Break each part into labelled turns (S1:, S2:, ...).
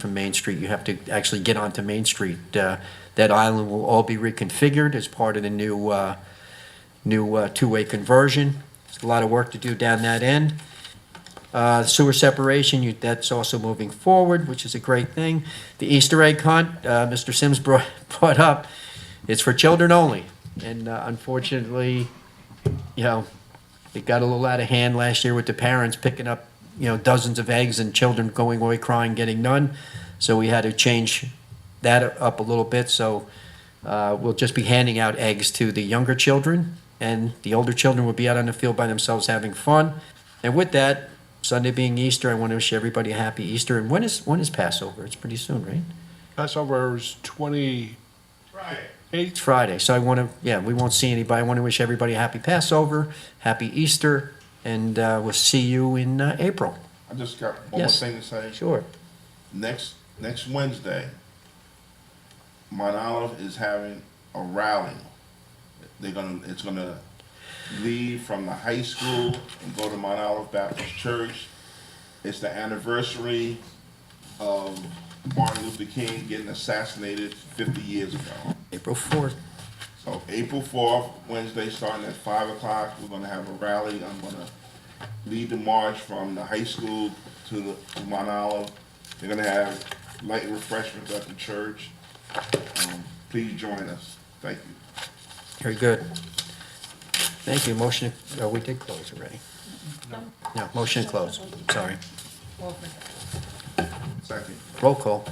S1: from Main Street, you have to actually get onto Main Street. Uh, That island will all be reconfigured as part of the new, uh, new uh, two-way conversion. There's a lot of work to do down that end. Uh, Sewer separation, you- that's also moving forward, which is a great thing. The Easter egg hunt, uh, Mr. Sims brought, brought up, it's for children only. And uh, unfortunately, you know, it got a little out of hand last year with the parents picking up, you know, dozens of eggs and children going away crying, getting none. So we had to change that up a little bit. So uh, we'll just be handing out eggs to the younger children, and the older children will be out on the field by themselves having fun. And with that, Sunday being Easter, I want to wish everybody a happy Easter. And when is when is Passover? It's pretty soon, right?
S2: Passover is twenty.
S1: It's Friday, so I want to, yeah, we won't see anybody. I want to wish everybody a happy Passover, happy Easter, and uh, we'll see you in uh, April.
S3: I just got one more
S1: Yes.
S3: thing to say.
S1: Sure.
S3: Next, next Wednesday, Mount Olive is having a rally. They're gonna, it's gonna leave from the high school and go to Mount Olive Baptist Church. It's the anniversary of Martin Luther King getting assassinated fifty years ago.
S1: April 4th.
S3: So April fourth, Wednesday, starting at five o'clock, we're gonna have a rally. I'm gonna lead the march from the high school to the to Mount Olive. They're gonna have light refreshments at the church. Um, Please join us. Thank you.
S1: Very good. Thank you. Motion, oh, we did close already. No, motion to close. Sorry.
S3: Second.
S1: Roll call.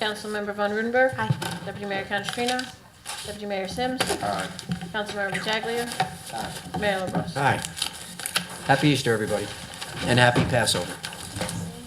S4: Councilmember Von Rudenberg. Aye. Deputy Mayor Canestrino. Deputy Mayor Sims.
S3: Aye.
S4: Councilmember Pataglia. Mayor LaBrus.
S1: Hi. Happy Easter, everybody, and happy Passover.